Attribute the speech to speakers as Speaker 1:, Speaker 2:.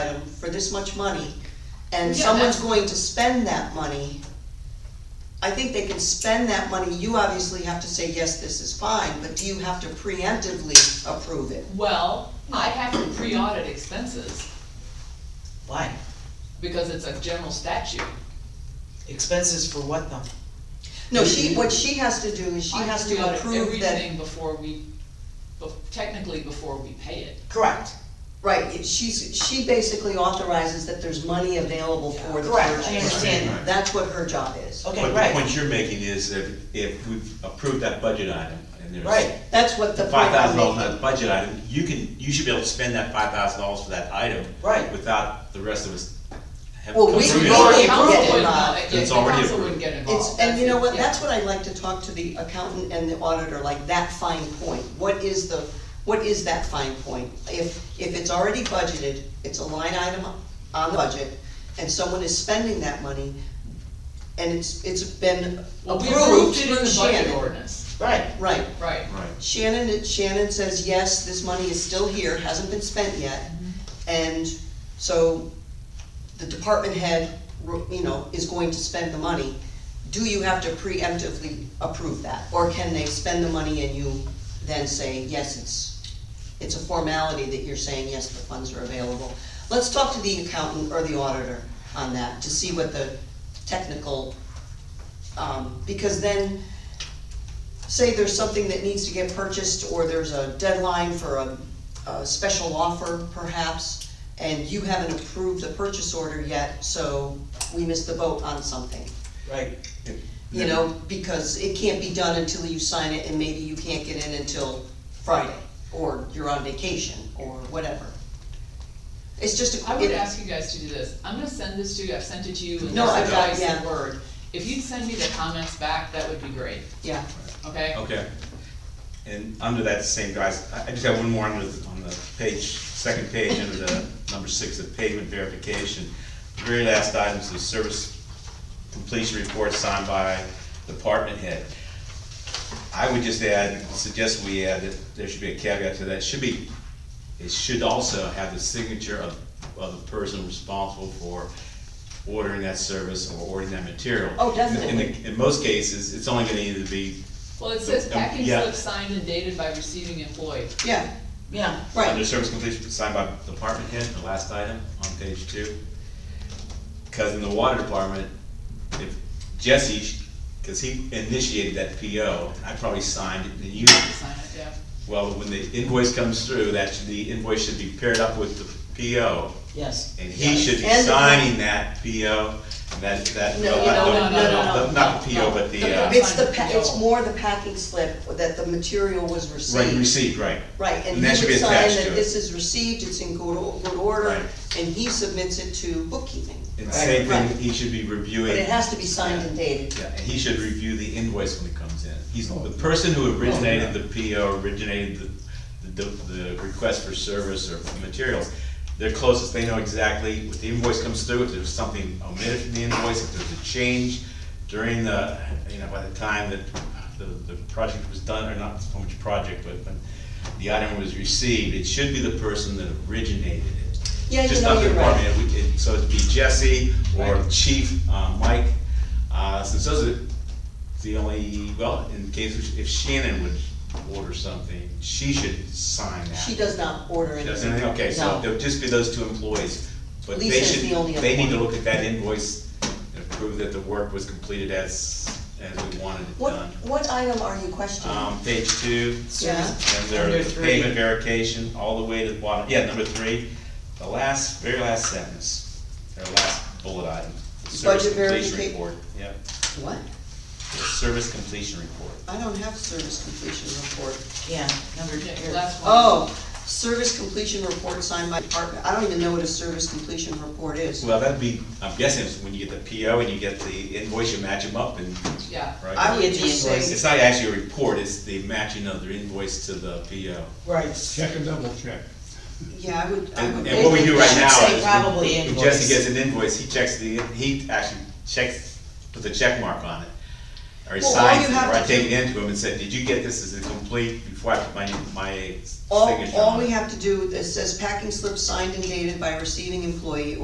Speaker 1: this much money, and
Speaker 2: Yeah,
Speaker 1: someone's
Speaker 2: that's-
Speaker 1: going to spend that money, I think they can spend that money, you obviously have to say, yes, this is fine, but do you have to preemptively approve it?
Speaker 2: Well, I have to pre-audit expenses,
Speaker 3: Why?
Speaker 2: because it's a general statute.
Speaker 3: Expenses for what though?
Speaker 1: No, she, what she has to do is she
Speaker 2: I
Speaker 1: has to
Speaker 2: pre-audit
Speaker 1: approve that,
Speaker 2: Everything before we, bef- technically before we pay it.
Speaker 3: Correct,
Speaker 1: right, it- she's, she basically authorizes that there's money available for the
Speaker 3: Correct, I
Speaker 1: purchase.
Speaker 3: understand
Speaker 4: that.
Speaker 1: That's what her job is.
Speaker 3: okay,
Speaker 4: But the
Speaker 3: right,
Speaker 4: point you're making is if, if we've approved that budget item, and there's.
Speaker 3: right,
Speaker 1: That's what the.
Speaker 4: Five thousand
Speaker 1: point I'm
Speaker 4: dollars on that budget item, you can, you should be able to spend that five thousand dollars for that item.
Speaker 3: Right.
Speaker 4: Without the rest of us have.
Speaker 1: Well,
Speaker 4: come
Speaker 1: we-
Speaker 4: through
Speaker 1: we
Speaker 4: it.
Speaker 3: already
Speaker 2: The council
Speaker 3: approved it.
Speaker 2: would
Speaker 1: not-
Speaker 2: not-
Speaker 4: It's
Speaker 2: yeah, the
Speaker 4: already
Speaker 2: council
Speaker 4: approved.
Speaker 2: wouldn't get involved.
Speaker 1: It's, and you know what,
Speaker 2: yeah.
Speaker 1: that's what I'd like to talk to the accountant and the auditor, like that fine point, what is the, what is that fine point? If, if it's already budgeted, it's a line item on the budget, and someone is spending that money, and it's, it's been
Speaker 2: Well, we
Speaker 1: approved
Speaker 2: approved it in
Speaker 1: through
Speaker 2: the budget
Speaker 1: Shannon.
Speaker 2: ordinance,
Speaker 3: right,
Speaker 1: Right,
Speaker 2: right.
Speaker 4: Right,
Speaker 1: Shannon, Shannon says, yes, this money is still here, hasn't been spent yet, and so the department head, you know, is going to spend the money. Do you have to preemptively approve that, or can they spend the money and you then say, yes, it's, it's a formality that you're saying, yes, the funds are available? Let's talk to the accountant or the auditor on that, to see what the technical, um, because then, say there's something that needs to get purchased, or there's a deadline for a, a special offer perhaps, and you haven't approved the purchase order yet, so we missed the boat on something,
Speaker 3: right.
Speaker 1: you know, because it can't be done until you sign it, and maybe you can't get in until Friday, or you're on vacation, or whatever. It's just a.
Speaker 2: I would
Speaker 1: it-
Speaker 2: ask you guys to do this, I'm gonna send this to you, I've sent it to you in
Speaker 1: No, I've
Speaker 2: this
Speaker 1: got-
Speaker 2: advice
Speaker 1: yeah.
Speaker 2: and word. If you'd send me the comments back, that would be great,
Speaker 1: Yeah,
Speaker 2: okay?
Speaker 4: Okay. And under that same guise, I, I just have one more under, the- on the page, second page, under the number six, the payment verification. The Very last item is the service completion report signed by department head. I would just add, suggest we add that there should be a caveat to that, should be, it should also have the signature of, of the person responsible for ordering that service or ordering that material.
Speaker 1: Oh,
Speaker 4: In the- in the-
Speaker 1: definitely.
Speaker 4: In most cases, it's only gonna either be
Speaker 2: Well, it says
Speaker 4: Um,
Speaker 2: packing
Speaker 4: yeah.
Speaker 2: slip signed and dated by receiving employee.
Speaker 1: yeah,
Speaker 3: Yeah,
Speaker 4: Under
Speaker 1: right,
Speaker 4: service completion, signed by department head, the last item on page two. Cause in the water department, if Jesse, cause he initiated that PO, I probably signed it, and you,
Speaker 2: Sign it, yeah.
Speaker 4: well, when the invoice comes through, that, should- the invoice should be paired up with the PO,
Speaker 3: yes.
Speaker 4: and he should be
Speaker 1: And the-
Speaker 4: signing that PO, and that, that.
Speaker 1: No,
Speaker 4: well,
Speaker 1: you
Speaker 4: I
Speaker 1: don't-
Speaker 4: don't-
Speaker 1: no, no,
Speaker 2: no,
Speaker 4: the- Not the
Speaker 2: no,
Speaker 4: PO,
Speaker 2: no.
Speaker 4: but
Speaker 2: The-
Speaker 4: the, uh,
Speaker 1: it's the, pa- it's more the packing slip, that the material was received.
Speaker 4: right, received, right.
Speaker 1: Right, and
Speaker 4: And
Speaker 1: he
Speaker 4: that
Speaker 1: would
Speaker 4: should
Speaker 1: sign
Speaker 4: be attached
Speaker 1: that
Speaker 4: to it.
Speaker 1: this is received, it's in good, o- good order,
Speaker 4: Right.
Speaker 1: and he submits it to bookkeeping.
Speaker 4: And same
Speaker 1: Right.
Speaker 4: thing, he should be reviewing.
Speaker 1: But it has to be signed and dated.
Speaker 4: Yeah, and he should review the invoice when it comes in. He's, the person who originated the PO, originated the, the, the request for service or materials, they're closest, they know exactly, if the invoice comes through, if there's something omitted from the invoice, if there's a change during the, you know, by the time that the, the project was done, or not so much project, but when the item was received, it should be the person that originated it.
Speaker 1: Yeah, you
Speaker 4: Just
Speaker 1: know,
Speaker 4: not the
Speaker 1: you're right.
Speaker 4: department, it- it- so it'd be Jesse or
Speaker 3: Right.
Speaker 4: Chief uh, Mike, uh, since those are the only, well, in case, if- if Shannon would order something, she should sign that.
Speaker 1: She does not order
Speaker 4: She
Speaker 1: anything.
Speaker 4: doesn't, okay, so
Speaker 1: No.
Speaker 4: there'll just be those two employees, but they
Speaker 1: Lisa's
Speaker 4: should,
Speaker 1: the only other
Speaker 4: they need to
Speaker 1: one.
Speaker 4: look at that invoice and prove that the work was completed as, as we wanted it
Speaker 1: What,
Speaker 4: done.
Speaker 1: what item are you questioning?
Speaker 4: Um, page two,
Speaker 1: Yeah,
Speaker 4: and
Speaker 3: Number
Speaker 4: there, the
Speaker 3: three.
Speaker 4: payment verification, all the way to the bottom, yeah, number three, the last, very last sentence, or last bullet item. the service
Speaker 1: Budget
Speaker 4: completion
Speaker 1: verifica-
Speaker 4: report. Yep,
Speaker 1: what?
Speaker 4: the service completion report.
Speaker 1: I don't have service completion report.
Speaker 3: Yeah, number
Speaker 2: Okay,
Speaker 4: Um,
Speaker 2: last one.
Speaker 1: Oh, service completion report signed by department, I don't even know what a service completion report is.
Speaker 4: Well, that'd be, I'm guessing, it's when you get the PO and you get the invoice, you match them up and,
Speaker 2: Yeah.
Speaker 1: I
Speaker 4: right?
Speaker 1: would
Speaker 3: Get the
Speaker 1: just say,
Speaker 3: invoices.
Speaker 4: It's not actually a report, it's the matching of the invoice to the PO.
Speaker 3: Right.
Speaker 5: Check and double check.
Speaker 1: yeah, I would, I would.
Speaker 4: And and what we do right
Speaker 3: Should
Speaker 4: now
Speaker 3: say
Speaker 4: is,
Speaker 3: probably
Speaker 4: when- when
Speaker 3: invoice.
Speaker 4: Jesse gets an invoice, he checks the, he actually checks, puts a check mark on it. Or he
Speaker 1: Well, all
Speaker 4: signs
Speaker 1: you
Speaker 4: it,
Speaker 1: have
Speaker 4: or I
Speaker 1: to
Speaker 4: take it
Speaker 1: do-
Speaker 4: into him and said, did you get this as a complete, before I put my, my
Speaker 1: All,
Speaker 4: signature
Speaker 1: all
Speaker 4: on
Speaker 1: we
Speaker 4: it?
Speaker 1: have to do, it says packing slip signed and dated by receiving employee